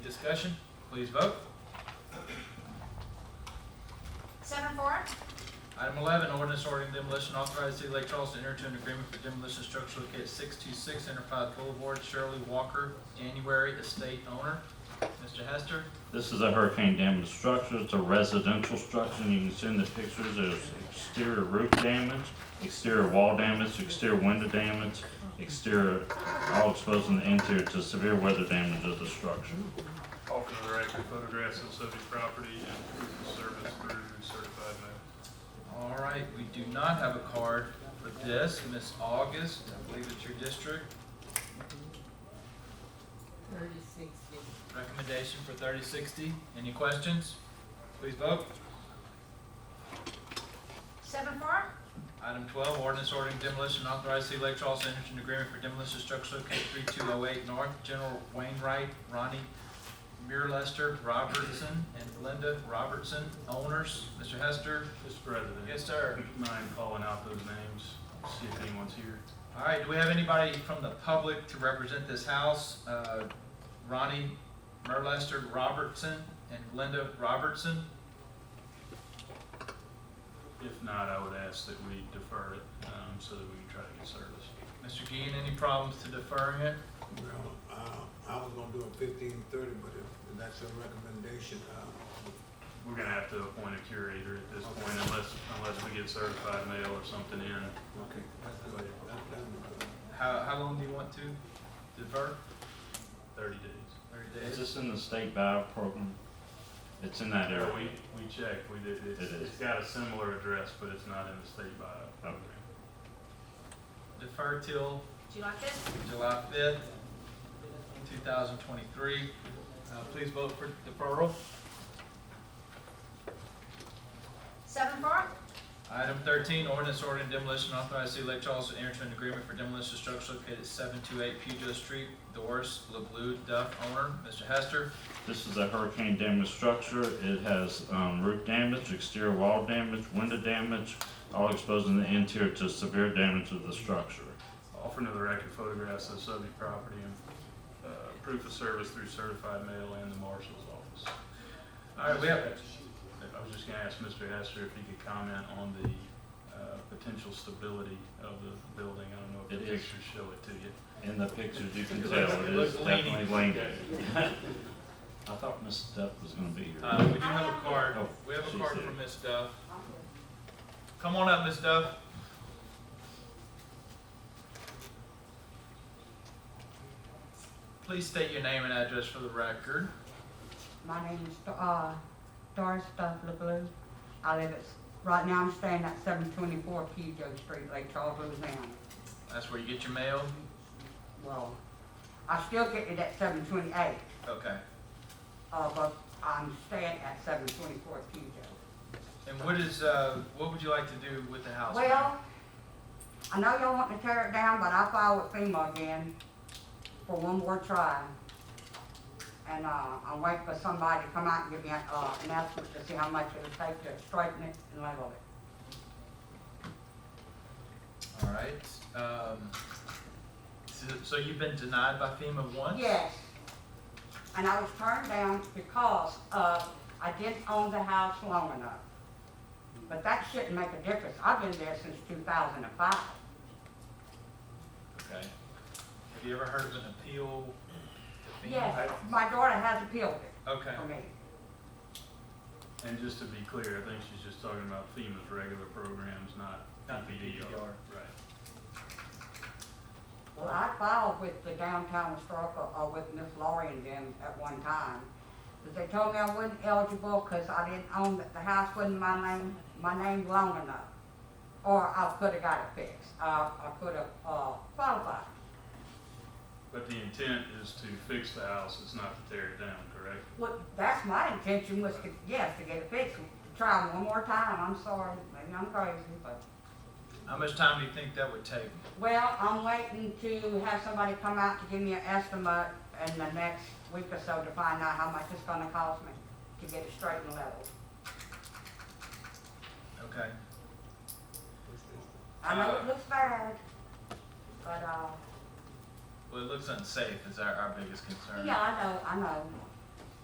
Discussion, please vote. Seven four, Item eleven, ordinance ordering demolition authorized City of Lake Charles to enter into an agreement for demolition structure located six-two-six Enterprise Boulevard, Shirley Walker, January estate owner. Mr. Hester, This is a hurricane damaged structure, it's a residential structure, and you can see in the pictures, there's exterior roof damage, exterior wall damage, exterior window damage, exterior, all exposing the interior to severe weather damage of the structure. All for the record, photographs of subject property and proof of service through certified mail. all right, we do not have a card for this. Miss August, I believe it's your district. Thirty-six fifty. Recommendation for thirty-sixty. Any questions? Please vote. seven four, Item twelve, ordinance ordering demolition authorized City of Lake Charles to enter into an agreement for demolition structure located three-two-oh-eight North General Wainwright, Ronnie Muirlester Robertson, and Linda Robertson, owners. Mr. Hester? Mr. President. Yes, sir. Mind calling out those names, see if anyone's here. All right, do we have anybody from the public to represent this house? Uh, Ronnie Muirlester Robertson and Linda Robertson? If not, I would ask that we defer it, um, so that we can try to get service. Mr. Gein, any problems to deferring it? Well, uh, I was gonna do it fifteen thirty, but if that's a recommendation, uh, We're gonna have to appoint a curator at this point unless, unless we get certified mail or something in. okay, that's, that's, that's, How, how long do you want to defer? 30 days. Thirty days? Is this in the state buyout program? It's in that Yeah, area. we, we checked, we did, it's, It is. it's got a similar address, but it's not in the state bio. Okay. Defer till July fifth, July fifth, two thousand twenty-three. Uh, please vote for deferral. seven four, Item thirteen, ordinance ordering demolition authorized City of Lake Charles to enter into an agreement for demolition of structure located at seven two eight Pujo Street, Doris LeBlue Duff, owner. Mr. Hester, This is a hurricane damaged structure, it has, um, roof damage, exterior wall damage, window damage, all exposing the interior to severe damage of the structure. Offer to the record photographs of subject property and, uh, proof of service through certified mail and the marshal's office. All right, we have- I was just gonna ask Mr. Hester if he could comment on the, uh, potential stability of the building. I don't know if the It is. pictures show it to you. In the pictures, you can It tell it looks- is it looks leaning. definitely leaning. I thought Miss Duff was gonna be here. uh, we do have a card. We have a card from Ms. Duff. Come on up, Ms. Duff. Please state your name and address for the record. My name is, uh, Doris Duff LeBlue. I live at, right now I'm staying at seven twenty-four Pujo Street, Lake Charles, Louisiana. That's where you get your mail. Well, I still get it at seven twenty-eight, Okay. uh, but I'm staying at seven twenty-four Pujo. And what is, uh, what would you like to do with the house? ma'am? Well, I know y'all want to tear it down, but I filed with FEMA again for one more try. And, uh, I'm waiting for somebody to come out and give me, an, uh, an estimate to see how much it would take to straighten it and level it. All right, um, so, so you've been denied by FEMA once? Yes. And I was turned down because, uh, I didn't own the house long enough. But that shouldn't make a difference. I've been there since two thousand and five. Okay. Have you ever heard of an appeal to FEMA? Yes, my daughter has appealed it Okay, for me. And just to be clear, I think she's just talking about FEMA's regular programs, not Not the PPDR. DDR. Right. Well, I filed with the downtown historical, uh, with Miss Laurie and them at one time. But they told me I wasn't eligible because I didn't own, the- the house wasn't my name, my name long enough. Or I could've got it fixed. I, I could've, uh, qualified. But the intent is to fix the house, it's not to tear it down, correct? Well, that's my intention was to, yes, to get it fixed, try one more time, I'm sorry, maybe I'm crazy, but. how much time do you think that would take? Well, I'm waiting to have somebody come out to give me an estimate in the next week or so to find out how much it's gonna cost me to get it straight and leveled. Okay, I know it looks bad, but, uh, well, it looks unsafe is our, our biggest concern. yeah, I know, I know,